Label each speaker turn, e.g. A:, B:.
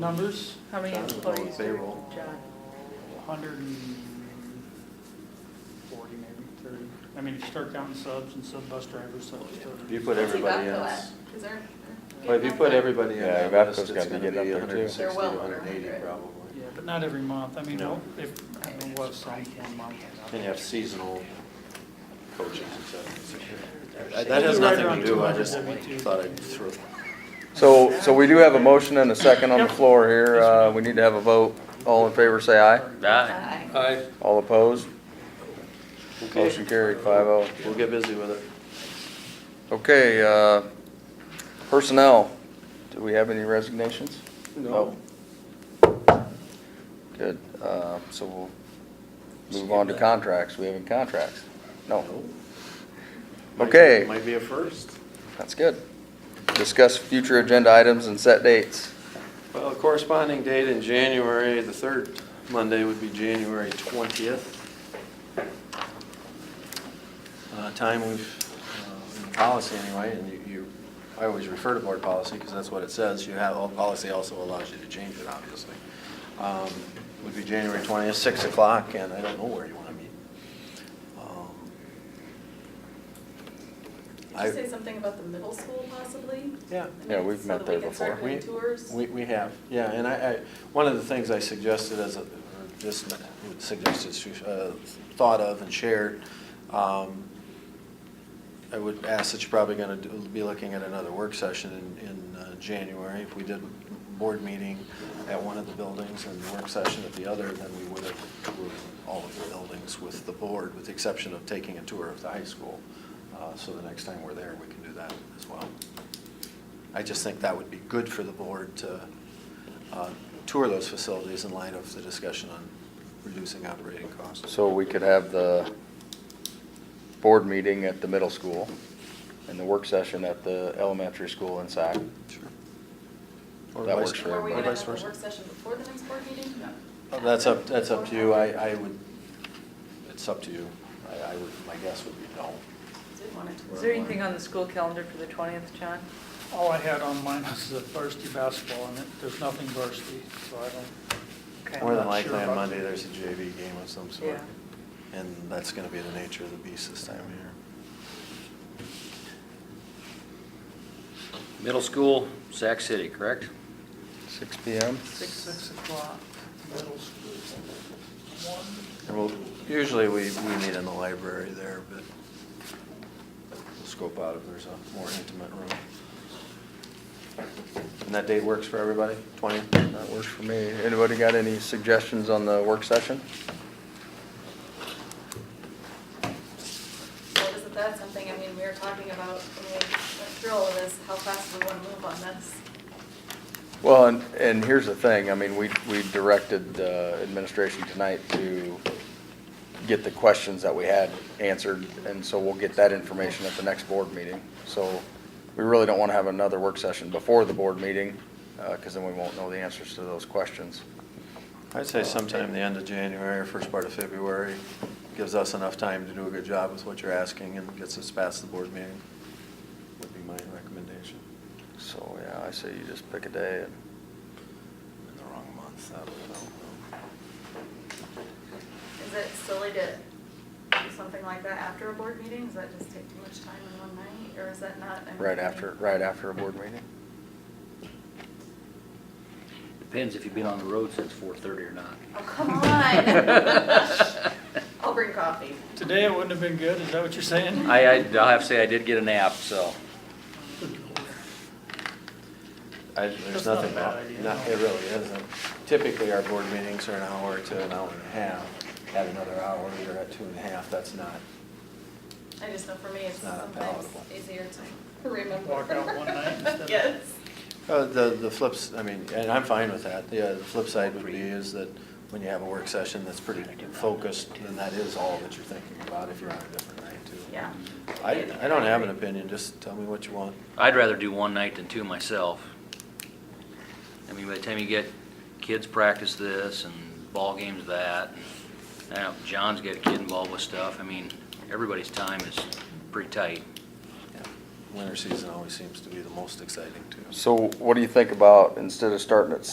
A: numbers,
B: How many
C: John was on
B: employees do
C: payroll.
B: we, John?
D: hundred and forty, maybe thirty. I mean, if you start counting subs and sub bus drivers, subs.
C: If you put everybody else,
E: Cause they're.
C: well, if you put everybody in
F: Yeah,
C: that list,
F: Evapco's
C: it's
F: gotta be
C: gonna be
F: getting up there, too.
C: hundred and sixty,
E: They're well
C: hundred and eighty
E: over 100.
C: probably.
D: Yeah, but not every month. I mean,
C: No.
D: if, I mean, what, some one month.
C: And you have seasonal coaches and
D: I
C: stuff.
D: think
C: That has
D: you're
C: nothing
D: right
C: to
D: around
C: do, I
D: 200
C: just
D: W2.
C: thought I'd throw.
F: So, so we do have a motion and a second on the floor here. Uh, we need to have a vote. All in favor, say aye.
G: Aye.
E: Aye.
F: All opposed? Motion
C: Okay,
F: carried, five oh.
C: we'll get busy with it.
F: Okay, uh, personnel, do we have any resignations?
C: No.
F: No. Good, uh, so we'll move on to contracts. We have any contracts? No,
C: Might-
F: Okay.
C: Might be a first.
F: that's good. Discuss future agenda items and set dates.
C: Well, the corresponding date in January, the third Monday would be January 20th. Uh, Time we've, uh, in policy anyway, and you- you, I always refer to board policy because that's what it says. You have, all policy also allows you to change it, obviously. Um, Would be January 20th, 6 o'clock, and I don't know where you want to meet. Um,
E: Did
C: I-
E: you say something about the middle school possibly?
C: Yeah.
E: I mean,
F: Yeah, we've met there before.
E: So that we
C: We-
E: can start doing tours?
C: We, we have, yeah, and I, I, one of the things I suggested as a, or just suggested, uh, thought of and shared, um, I would ask that you're probably gonna do- be looking at another work session in, in uh, January. If we did board meeting at one of the buildings and work session at the other, then we would have grouped all of the buildings with the board, with the exception of taking a tour of the high school. Uh, So the next time we're there, we can do that as well. I just think that would be good for the board to uh, tour those facilities in light of the discussion on reducing operating costs.
F: So we could have the board meeting at the middle school and the work session at the elementary school in Sac.
C: Sure. Or
F: That
C: vice-
F: works for
E: Were we
C: or
E: gonna
F: everybody.
C: vice
E: have a
C: versa.
E: work session before the next board meeting?
C: Oh, That's up, that's up to you. I, I would, it's up to you. I, I would, my guess would be no.
E: Did want to tour.
B: Is there anything on the school calendar for the 20th, John?
D: All I had on mine was the varsity basketball, and it- there's nothing varsity, so I don't,
B: Okay.
C: More than
D: I'm not sure
C: likely on
D: about
C: Monday,
D: that.
C: there's a JV game of some sort.
B: Yeah.
C: And that's going to be the nature of the beast this time of year.
G: Middle school, Sac City, correct?
F: Six P M?
D: six o'clock, middle school. One,
C: And we'll, usually we, we meet in the library there, but we'll scope out if there's a more intimate room. And that date works for everybody, 20th?
F: That works for me. Anybody got any suggestions on the work session?
E: So isn't that something, I mean, we were talking about when we went through all of this, how fast we want to move on this.
F: Well, and, and here's the thing, I mean, we, we directed uh, administration tonight to get the questions that we had answered, and so we'll get that information at the next board meeting. So we really don't want to have another work session before the board meeting, because then we won't know the answers to those questions.
C: I'd say sometime the end of January, or first part of February, gives us enough time to do a good job with what you're asking and gets us past the board meeting, would be my recommendation.
F: So, yeah, I say you just pick a day and
C: In the wrong month, that would
E: Is it silly to do something like that after a board meeting? Does that just take too much time in one night, or is that not? I mean,
F: right after, right after a board meeting.
G: Depends if you've been on the road since 4:30 or not.
E: Oh, come on. I'll bring coffee.
D: Today it wouldn't have been good, is that what you're saying?
G: I, I- I'll have to say I did get a nap, so.
C: I, there's
D: That's not a
C: nothing
D: bad
C: bad,
D: idea.
C: no, it really isn't. Typically, our board meetings are an hour to an hour and a half. At another hour, you're at two and a half, that's not,
E: I just know for me, it's
C: It's not
E: sometimes
C: palatable.
E: easier to remember.
D: Walk out one night instead of-
E: Yes.
C: Uh, The, the flips, I mean, and I'm fine with that. Yeah, the flip side would be is that when you have a work session that's pretty focused, then that is all that you're thinking about if you're on a different night too.
E: Yeah.
C: I, I don't have an opinion, just tell me what you want.
G: I'd rather do one night than two myself. I mean, by the time you get, kids practice this and ball games that, and now John's got a kid involved with stuff. I mean, everybody's time is pretty tight.
C: Yeah. Winter season always seems to be the most exciting too.
F: So what do you think about, instead of starting at